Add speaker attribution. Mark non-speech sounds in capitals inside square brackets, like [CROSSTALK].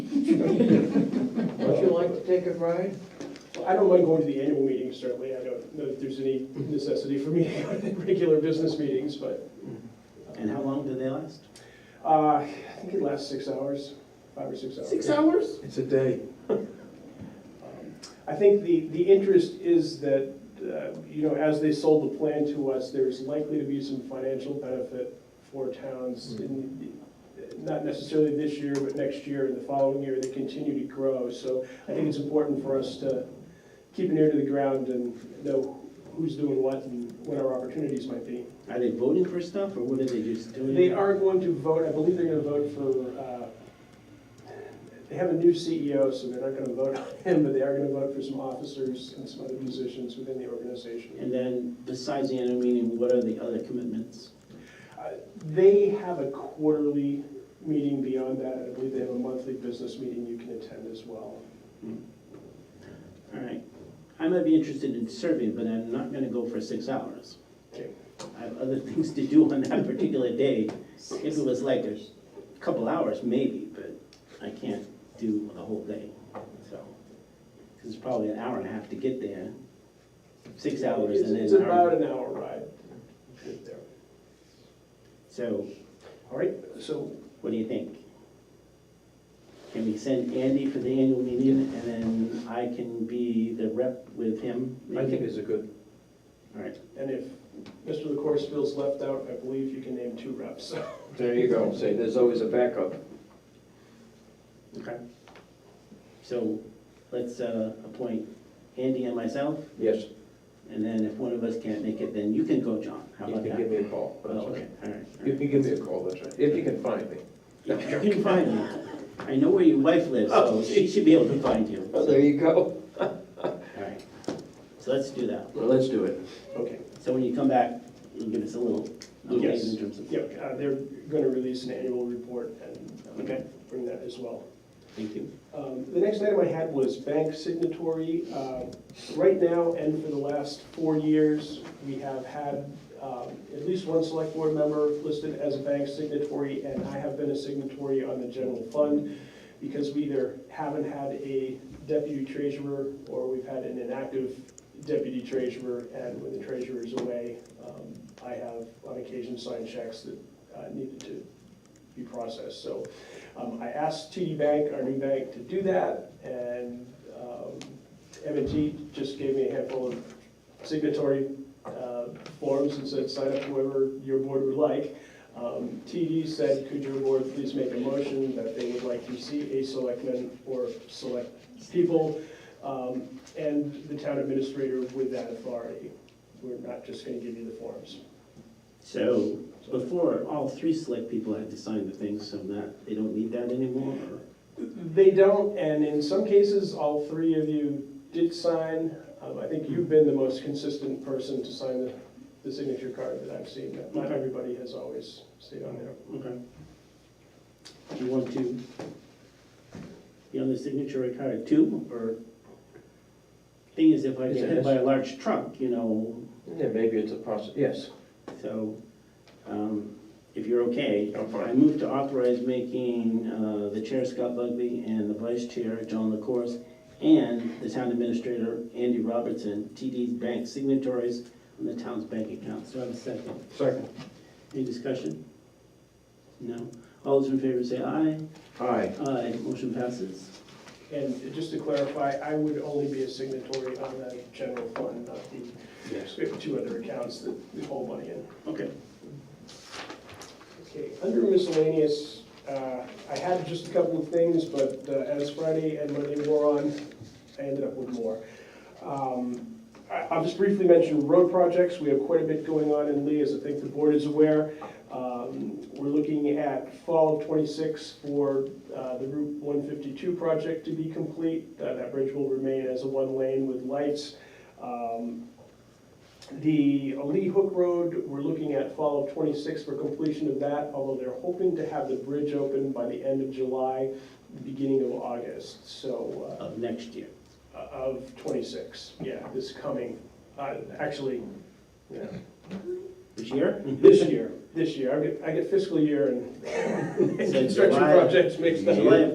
Speaker 1: Would you like to take a ride?
Speaker 2: Well, I don't mind going to the annual meetings, certainly. I don't know if there's any necessity for me [LAUGHS] to go to the regular business meetings, but
Speaker 3: And how long do they last?
Speaker 2: uh, I think it lasts six hours, five or six hours.
Speaker 3: hours?
Speaker 4: It's a day.
Speaker 2: I think the, the interest is that, uh, you know, as they sold the plan to us, there's likely to be some financial benefit for towns in, not necessarily this year, but next year and the following year, they continue to grow. So I think it's important for us to keep an ear to the ground and know who's doing what and what our opportunities might be.
Speaker 3: Are they voting for stuff, or what are they just doing?
Speaker 2: They are going to vote, I believe they're gonna vote for, uh, they have a new CEO, so they're not gonna vote on him, but they are gonna vote for some officers and some other positions within the organization.
Speaker 3: And then, besides the annual meeting, what are the other commitments?
Speaker 2: Uh, They have a quarterly meeting beyond that, and I believe they have a monthly business meeting you can attend as well.
Speaker 3: All right, I might be interested in serving, but I'm not gonna go for six hours.
Speaker 2: Okay.
Speaker 3: I have other [LAUGHS] things to do on that particular day. If it was like a couple hours, maybe, but I can't do the whole day, so. 'Cause it's probably an hour and a half to get there, six hours
Speaker 2: It's
Speaker 3: and
Speaker 2: it's
Speaker 3: then an
Speaker 2: about
Speaker 3: hour.
Speaker 2: an hour ride.
Speaker 3: So,
Speaker 2: All right, so
Speaker 3: what do you think? Can we send Andy for the annual meeting, and then I can be the rep with him?
Speaker 4: I
Speaker 3: maybe?
Speaker 4: think it's a good,
Speaker 3: All right,
Speaker 2: And if Mr. LaCourse feels left out, I believe you can name two reps. [LAUGHS]
Speaker 4: there you go, say, there's always a backup.
Speaker 3: okay. So, let's uh, appoint Andy and myself,
Speaker 4: Yes,
Speaker 3: and then if one of us can't make it, then you can go, John, how
Speaker 4: you
Speaker 3: about
Speaker 4: can
Speaker 3: that?
Speaker 4: give me a call.
Speaker 3: Oh, okay, all right. all
Speaker 4: You
Speaker 3: right.
Speaker 4: can give me a call, that's right, if you can find me.
Speaker 3: You can find me. I know where your wife lives, so she should be able to find you.
Speaker 4: Oh,
Speaker 3: All
Speaker 4: there you go.
Speaker 3: right, so let's do that.
Speaker 4: Well, let's do it.
Speaker 2: Okay.
Speaker 3: So when you come back, you'll give us a little, little
Speaker 2: Yes.
Speaker 3: thing in terms of.
Speaker 2: Yep, uh, they're going to release an annual report and um,
Speaker 3: Okay.
Speaker 2: bring that as well.
Speaker 3: Thank you.
Speaker 2: Um, The next item I had was bank signatory. Uh, Right now, and for the last four years, we have had um, at least one select board member listed as a bank signatory, and I have been a signatory on the general fund because we either haven't had a deputy treasurer, or we've had an inactive deputy treasurer, and when the treasurer is away, um, I have on occasion signed checks that uh, needed to be processed. So um, I asked TD Bank, our new bank, to do that, and um, M&T just gave me a handful of signatory uh, forms and said, sign up whoever your board would like. Um, TD said, could your board please make a motion that they would like to see a selectman or select people, um, and the town administrator with that authority. We're not just gonna give you the forms.
Speaker 3: So before, all three select people had to sign the things, so that, they don't need that anymore, or?
Speaker 2: They don't, and in some cases, all three of you did sign. Um, I think you've been the most consistent person to sign the, the signature card that I've seen. Not
Speaker 3: Okay.
Speaker 2: everybody has always stayed on there.
Speaker 3: Okay. Do you want to be on the signatory card too, or? Thing is, if I get hit by a large truck, you know,
Speaker 4: Yeah, maybe it's a possi, yes.
Speaker 3: so, um, if you're okay.
Speaker 4: I'm fine.
Speaker 3: I move to authorize making, uh, the chair Scott Bugby and the vice chair John LaCourse and the town administrator Andy Robertson, TD's bank signatories on the town's bank account. So I have a second.
Speaker 4: Second.
Speaker 3: Any discussion? No? All those in favor say aye.
Speaker 4: Aye.
Speaker 3: Aye, motion passes.
Speaker 2: And just to clarify, I would only be a signatory on the general fund, not the
Speaker 4: Yes.
Speaker 2: two other accounts that we hold money in.
Speaker 3: Okay.
Speaker 2: Okay, under miscellaneous, uh, I had just a couple of things, but uh, as Friday and Monday wore on, I ended up with more. Um, I- I'll just briefly mention road projects. We have quite a bit going on in Lee, as I think the board is aware. Um, We're looking at fall of '26 for uh, the Route 152 project to be complete. Uh, That bridge will remain as a one lane with lights. Um, the Lee Hook Road, we're looking at fall of '26 for completion of that, although they're hoping to have the bridge open by the end of July, beginning of August, so,
Speaker 3: Of next year.
Speaker 2: uh, of '26, yeah, this coming, uh, actually, yeah,
Speaker 3: This year?
Speaker 2: this year, this year, I get- I get fiscal year and [LAUGHS] construction
Speaker 3: July-
Speaker 2: projects mixed up.
Speaker 3: July